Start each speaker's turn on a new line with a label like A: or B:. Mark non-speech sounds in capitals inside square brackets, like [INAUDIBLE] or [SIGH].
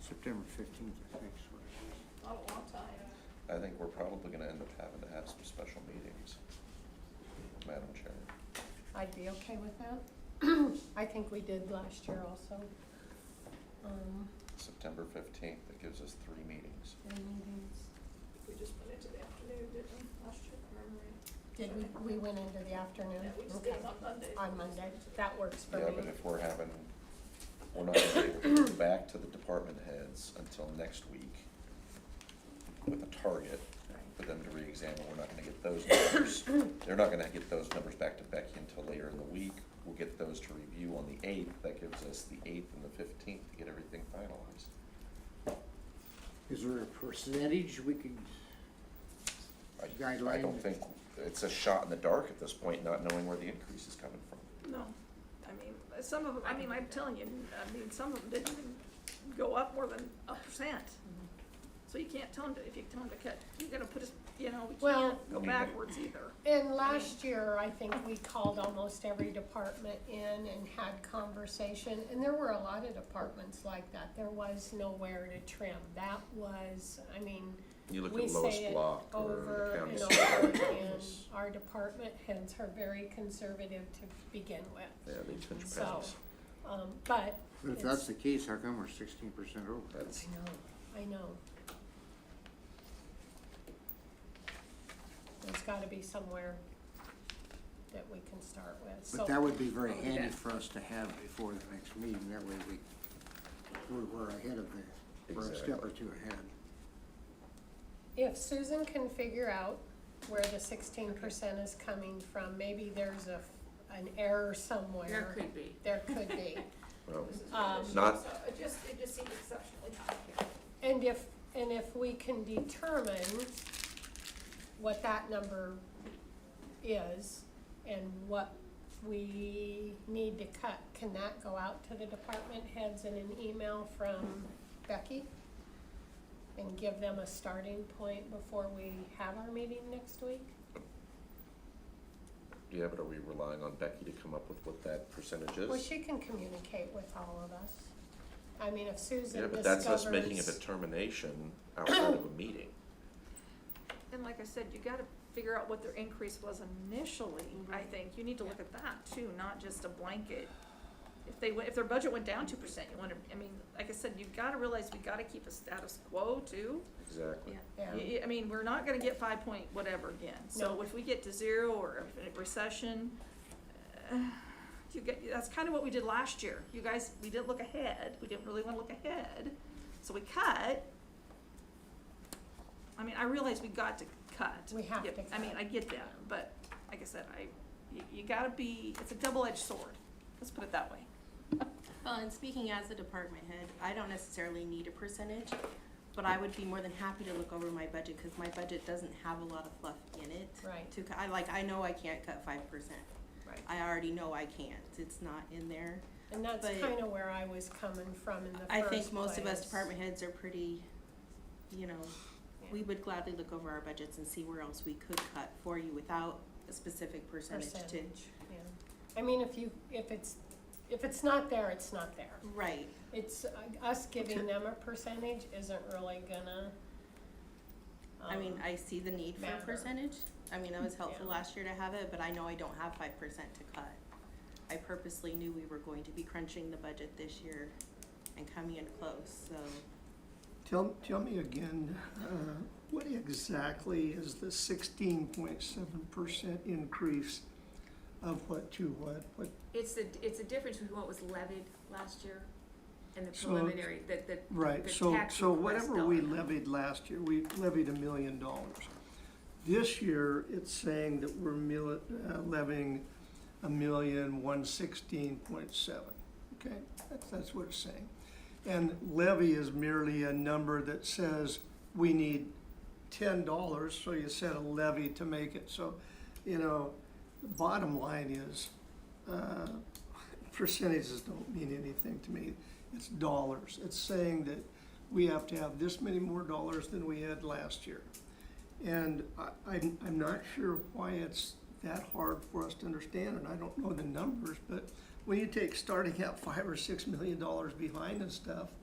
A: September fifteenth, I think, is what it is.
B: Oh, long time.
C: I think we're probably gonna end up having to have some special meetings, Madam Chair.
D: I'd be okay with that. I think we did last year also. Um,
C: September fifteenth, that gives us three meetings.
D: the meetings,
B: We just went into the afternoon, didn't we, last year, remember?
D: did we, we went into the afternoon?
B: Yeah, we just
D: Okay.
B: did it on Monday.
D: On Monday, that works for me.
C: Yeah, but if we're having, we're not gonna be able to go [COUGHS] back to the department heads until next week with a target for them to reexamine, we're not gonna get those numbers. [COUGHS] They're not gonna get those numbers back to Becky until later in the week. We'll get those to review on the eighth, that gives us the eighth and the fifteenth to get everything finalized.
A: Is there a percentage we could,
C: I, I
A: Guideline.
C: don't think, it's a shot in the dark at this point, not knowing where the increase is coming from.
B: No, I mean, some of them, I mean, I'm telling you, I mean, some of them didn't even go up more than a percent.
D: Mm-hmm.
B: So you can't tell them to, if you tell them to cut, you're gonna put us, you know, we
D: Well-
B: can't go backwards either.
D: And last year, I think we called almost every department in and had conversation, and there were a lot of departments like that. There was nowhere to trim. That was, I mean,
C: You look
D: we
C: at lowest
D: say it
C: block or the
D: over
C: county
D: and
C: secretary.
D: over again. Our department heads are very conservative to begin
C: Yeah,
D: with.
C: they pinch
D: So,
C: pennies.
D: um, but
A: but if that's the case, how come we're sixteen percent over?
C: That's,
D: I know, I know. There's gotta be somewhere that we can start with, so.
A: But that would be very
B: Oh, yeah.
A: handy for us to have before the next meeting, that way we, we're, we're ahead of the, we're a step or
C: Exactly.
A: two ahead.
D: If Susan can figure out where the sixteen percent is coming from, maybe there's a, an error somewhere.
E: There could be.
D: There could be.
C: well,
D: Um,
C: Not-
B: So It just, it just seemed exceptionally high here.
D: And if, and if we can determine what that number is and what we need to cut, can that go out to the department heads in an email from Becky? And give them a starting point before we have our meeting next week?
C: yeah, but are we relying on Becky to come up with what that percentage
D: Well,
C: is?
D: she can communicate with all of us. I mean, if Susan
C: Yeah,
D: discovers.
C: but that's us making a determination outside of a meeting.
B: And like I said, you gotta figure out what their increase was initially, I think, you need to look at that too, not just a blanket. If they, went- if their budget went down two percent, you wanna, I mean, like I said, you've gotta realize we gotta keep a status quo too.
C: Exactly.
D: Yeah.
B: Y- y- I mean, we're not gonna get five point whatever again, so
D: No.
B: if we get to zero or a recession, uh, you get, that's kinda what we did last year, you guys, we didn't look ahead, we didn't really wanna look ahead, so we cut. I mean, I realize we got to cut.
D: We have
B: Yeah,
D: to
B: I mean,
D: cut.
B: I get that, but like I said, I, you, you gotta be, it's a double-edged sword, let's put it that way.
E: Well, and speaking as a department head, I don't necessarily need a percentage, but I would be more than happy to look over my budget, cause my budget doesn't have a lot of fluff in it.
D: Right.
E: To, cu- I like, I know I can't cut five percent.
D: Right.
E: I already know I can't, it's not in there.
D: And that's
E: But-
D: kinda where I was coming from in the first
E: I think most of us
D: place.
E: department heads are pretty, you know, we would gladly look over our budgets and see where else we could cut for you without a specific percentage to.
D: Percentage, yeah. I mean, if you, if it's, if it's not there, it's not there.
E: Right,
D: It's, uh, us giving them a percentage isn't really gonna.
E: I mean,
D: um,
E: I see the need for
D: matter.
E: percentage. I mean, it was helpful
D: Yeah.
E: last year to have it, but I know I don't have five percent to cut. I purposely knew we were going to be crunching the budget this year and coming in close, so.
F: Tell, tell me again, uh, what exactly is the sixteen point seven percent increase of what to what? What,
G: It's the, it's the difference between what was levied last year and the
F: So-
G: preliminary, the, the.
F: right,
G: the
F: so,
G: tax
F: so
G: request
F: whatever we
G: dollar.
F: levied last year, we levied a million dollars. This year, it's saying that we're mil, uh, levying a million one sixteen point seven, okay? That's, that's what it's saying. And levy is merely a number that says we need ten dollars, so you set a levy to make it, so, you know, the bottom line is, uh, [LAUGHS] percentages don't mean anything to me, it's dollars, it's saying that we have to have this many more dollars than we had last year. And I, I'm, I'm not sure why it's that hard for us to understand, and I don't know the numbers, but when you take starting out five or six million dollars behind and stuff,